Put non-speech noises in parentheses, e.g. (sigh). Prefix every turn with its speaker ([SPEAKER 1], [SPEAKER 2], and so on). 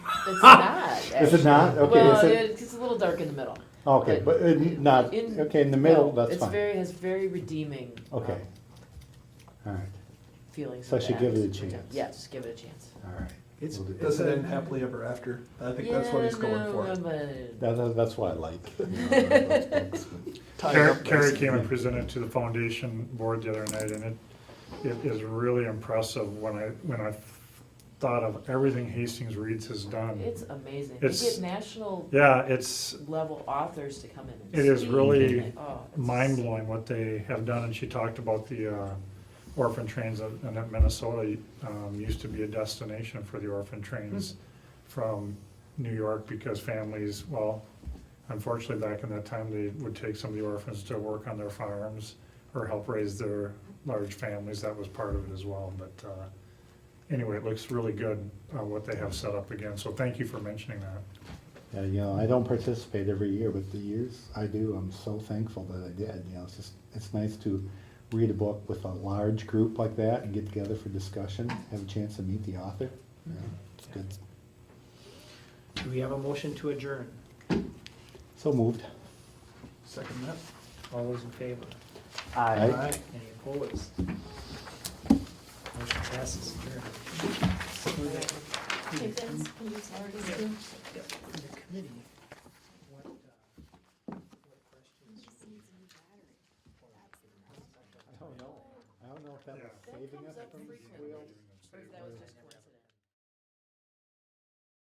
[SPEAKER 1] It's not.
[SPEAKER 2] Is it not?
[SPEAKER 1] actually.
[SPEAKER 2] Okay,
[SPEAKER 1] Well,
[SPEAKER 2] is
[SPEAKER 1] it,
[SPEAKER 2] it-
[SPEAKER 1] it's a little dark in the middle.
[SPEAKER 2] Okay, but it- not,
[SPEAKER 1] In-
[SPEAKER 2] okay, in the middle,
[SPEAKER 1] no,
[SPEAKER 2] that's
[SPEAKER 1] It's
[SPEAKER 2] fine.
[SPEAKER 1] very, has very redeeming.
[SPEAKER 2] Okay.
[SPEAKER 1] um,
[SPEAKER 2] All right,
[SPEAKER 1] Feelings.
[SPEAKER 2] So I
[SPEAKER 1] of
[SPEAKER 2] should
[SPEAKER 1] that.
[SPEAKER 2] give it a chance.
[SPEAKER 1] Yes, give it a chance.
[SPEAKER 2] all right.
[SPEAKER 3] It's,
[SPEAKER 2] We'll do-
[SPEAKER 3] doesn't end happily ever after. I think that's what he's going for. (laughs)
[SPEAKER 2] That- that- that's what I like.
[SPEAKER 3] Tied
[SPEAKER 4] Carrie
[SPEAKER 3] up
[SPEAKER 4] Carrie
[SPEAKER 3] nicely.
[SPEAKER 4] came and presented to the foundation board the other night, and it, it is really impressive when I, when I thought of everything Hastings Reads has done.
[SPEAKER 1] (laughs) It's amazing. You
[SPEAKER 4] It's-
[SPEAKER 1] get national
[SPEAKER 4] Yeah, it's
[SPEAKER 1] level authors to come in and
[SPEAKER 4] It is
[SPEAKER 1] speak,
[SPEAKER 4] really
[SPEAKER 1] and, oh, it's-
[SPEAKER 4] mind-blowing what they have done, and she talked about the uh, orphan trains, and that Minnesota um, used to be a destination for the orphan trains from New York, because families, well, unfortunately, back in that time, they would take some of the orphans to work on their farms or help raise their large families, that was part of it as well, but uh, anyway, it looks really good, uh, what they have set up again, so thank you for mentioning that.
[SPEAKER 2] Yeah, you know, I don't participate every year, but the years I do, I'm so thankful that I did. You know, it's just, it's nice to read a book with a large group like that and get together for discussion, have a chance to meet the author. Yeah, It's good.
[SPEAKER 5] Do we have a motion to adjourn?
[SPEAKER 2] So moved.
[SPEAKER 3] Second that.
[SPEAKER 5] All those in favor?
[SPEAKER 2] Aye.
[SPEAKER 3] Aye.
[SPEAKER 5] Any opposed? Motion passes, adjourn.
[SPEAKER 6] Hey, Vince, can you tell us too?
[SPEAKER 5] In the committee, what, uh, what questions?
[SPEAKER 2] I don't know. I don't know if that was saving us from the squeal.
[SPEAKER 1] That was just one.